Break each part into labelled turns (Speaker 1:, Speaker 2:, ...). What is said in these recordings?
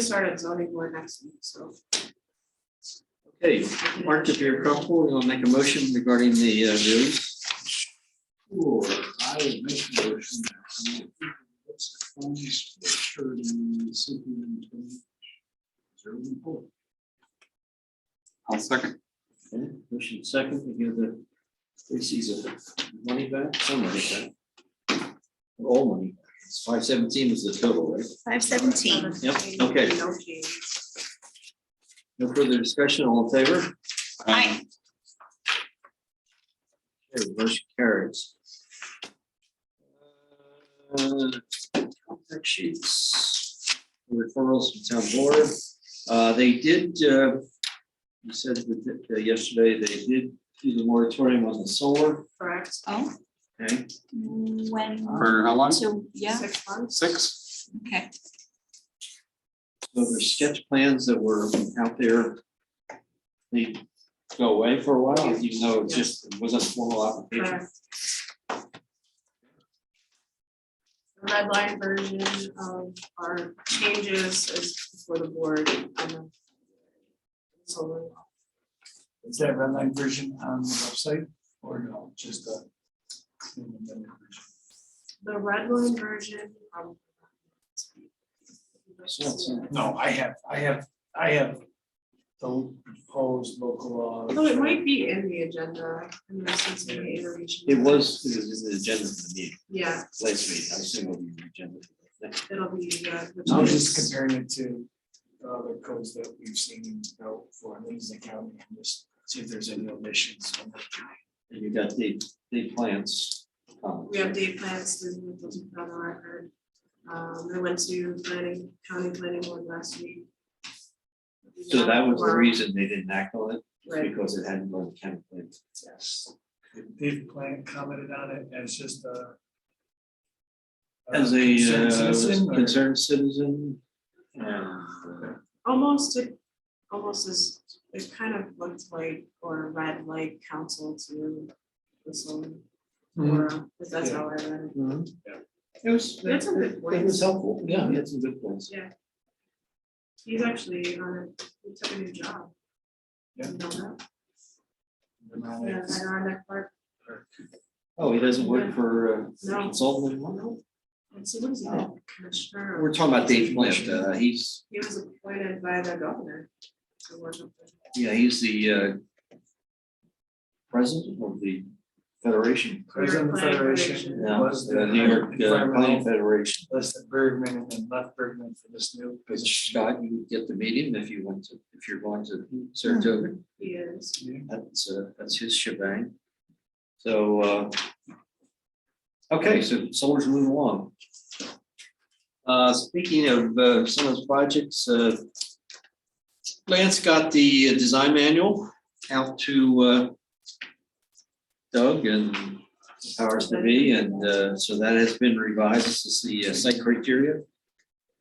Speaker 1: start at zoning board next week, so.
Speaker 2: Okay, Mark, if you're comfortable, you'll make a motion regarding the uh, release.
Speaker 3: Sure, I would make a motion. that we fix the phones for sure in the city and the- Zero and four.
Speaker 4: I'll second.
Speaker 2: Okay, Motion second, to give the Reese's uh, money back, some money back. All money, five seventeen is the total, right?
Speaker 5: Five seventeen.
Speaker 2: Yep, okay.
Speaker 1: No change.
Speaker 2: No further discussion, all in favor?
Speaker 5: Aye.
Speaker 2: Okay, motion carries. Uh, Fact sheets, referrals from town board, uh, they did, uh, you said that uh, yesterday, they did do the moratorium on the solar,
Speaker 1: Correct,
Speaker 5: Oh,
Speaker 2: okay?
Speaker 5: when,
Speaker 4: For how long?
Speaker 5: so, yeah,
Speaker 1: six months.
Speaker 4: Six?
Speaker 5: okay.
Speaker 2: So the sketch plans that were out there, they go away for a while, even though it just wasn't a formal application.
Speaker 1: Correct. The red line version of our changes is for the board. on the- So,
Speaker 3: Is that red line version on the website or no, just a? in the middle version?
Speaker 1: the red line version. um,
Speaker 3: No, I have, I have, I have the proposed local law.
Speaker 1: Although it might be in the agenda, unless it's in the iteration.
Speaker 2: It was, it was in the agenda for the meeting,
Speaker 1: Yeah,
Speaker 2: last meeting, I assume it'll be in the agenda. Next-
Speaker 1: it'll be, uh. the-
Speaker 3: I was just comparing it to the other codes that we've seen out for Livingston County and just see if there's any omissions.
Speaker 2: And you got the, the plans. um,
Speaker 1: We have day plans, to move those on the record. Um, I went to planning, county planning board last week.
Speaker 2: So that was the
Speaker 1: Or-
Speaker 2: reason they didn't act on it,
Speaker 1: Right,
Speaker 2: because it hadn't gone to county plan.
Speaker 3: They've planned, commented on it as just a.
Speaker 2: As
Speaker 3: concerned
Speaker 2: a
Speaker 3: citizen
Speaker 2: uh,
Speaker 3: or-
Speaker 2: concerned citizen. and, uh,
Speaker 1: almost, it, almost as, it kind of looked like, or read like council to this one. Or, if that's how I read it.
Speaker 2: It was,
Speaker 1: That's a good
Speaker 2: Mm-hmm. it
Speaker 1: point.
Speaker 2: was helpful, yeah, he had some good points.
Speaker 1: He's actually, on a- he took a new job.
Speaker 3: Yeah.
Speaker 1: You know that? Yeah,
Speaker 3: They're
Speaker 1: I know that part.
Speaker 2: Oh, he doesn't work for uh,
Speaker 1: No.
Speaker 2: consultant anymore?
Speaker 1: And so what is he,
Speaker 2: Oh.
Speaker 1: commissioner? or-
Speaker 2: We're talking about Dave Plant, uh, he's,
Speaker 1: He was appointed by the governor to work with the
Speaker 2: yeah, he's the uh. President of the Federation.
Speaker 3: President of the
Speaker 1: Planning
Speaker 3: Federation
Speaker 2: Yeah,
Speaker 3: was
Speaker 2: the
Speaker 3: the
Speaker 2: New York uh, Planning
Speaker 3: environmental,
Speaker 2: Federation.
Speaker 3: listed Bergman and then left Bergman for this new
Speaker 2: Which
Speaker 3: position.
Speaker 2: Scott, you get the meeting if you want to, if you're going to Saratoga,
Speaker 1: He is.
Speaker 2: that's uh, that's his shebang. So uh. Okay, so solar's moving along. Uh, speaking of uh, some of those projects, uh. Lance got the uh, design manual out to uh. Doug and powers to be, and uh, so that has been revised, this is the uh, site criteria.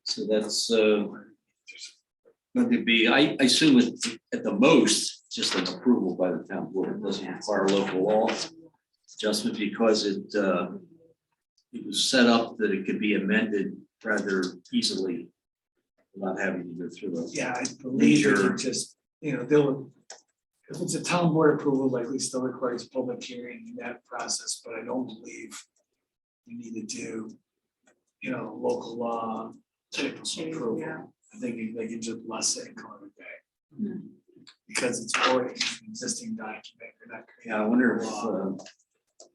Speaker 2: So that's uh. Going to be, I I assume it's at the most, just an approval by the town board, it doesn't require local law adjustment because it uh. It was set up that it could be amended rather easily. Not having to go through a
Speaker 3: Yeah, I believe you
Speaker 2: Major-
Speaker 3: can just, you know, they'll, if it's a town board approval, likely still requires public hearing in that process, but I don't believe you need to do, you know, local law type of
Speaker 1: Change, yeah.
Speaker 3: approval. I think you- they can just bless it and call it a day.
Speaker 5: Hmm.
Speaker 3: Because it's already an existing document, you're not creating.
Speaker 2: Yeah, I wonder if uh.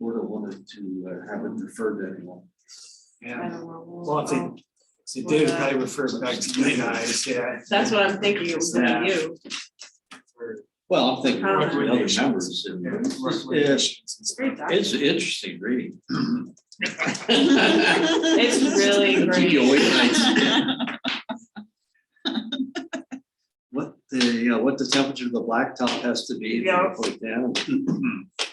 Speaker 2: Board wanted to uh, have it referred to anyone.
Speaker 1: I
Speaker 3: Yeah,
Speaker 1: don't know.
Speaker 3: well, if they, if they did, it'd probably refer it back to you guys, yeah.
Speaker 1: uh, That's what I'm thinking, it was gonna be you.
Speaker 3: For-
Speaker 2: Well, I'm thinking of other
Speaker 3: Recommendations.
Speaker 2: members and.
Speaker 3: yeah, recommendations and
Speaker 2: It's
Speaker 3: stuff.
Speaker 1: Great doc.
Speaker 2: it's interesting reading.
Speaker 1: It's really
Speaker 2: Keep
Speaker 1: great.
Speaker 2: you awake at night. What the, you know, what the temperature of the blacktop has to be. if you
Speaker 1: Yeah.
Speaker 2: Put it down.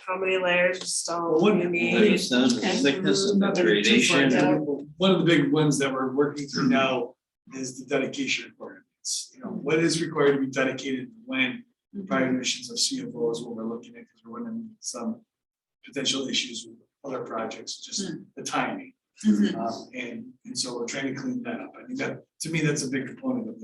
Speaker 1: How many layers of stone
Speaker 3: Well,
Speaker 1: you
Speaker 3: what-
Speaker 2: The
Speaker 1: need?
Speaker 2: sun, the thickness and the
Speaker 3: Not to be too far
Speaker 2: gradation.
Speaker 3: down, but One of the big ones that we're working through now is the dedication requirements. You know, what is required to be dedicated when prior emissions of CFO is what we're looking at, because we're running some potential issues with other projects, just the timing.
Speaker 5: Mhm.
Speaker 3: Um, And, and so we're trying to clean that up. I think that, to me, that's a big component of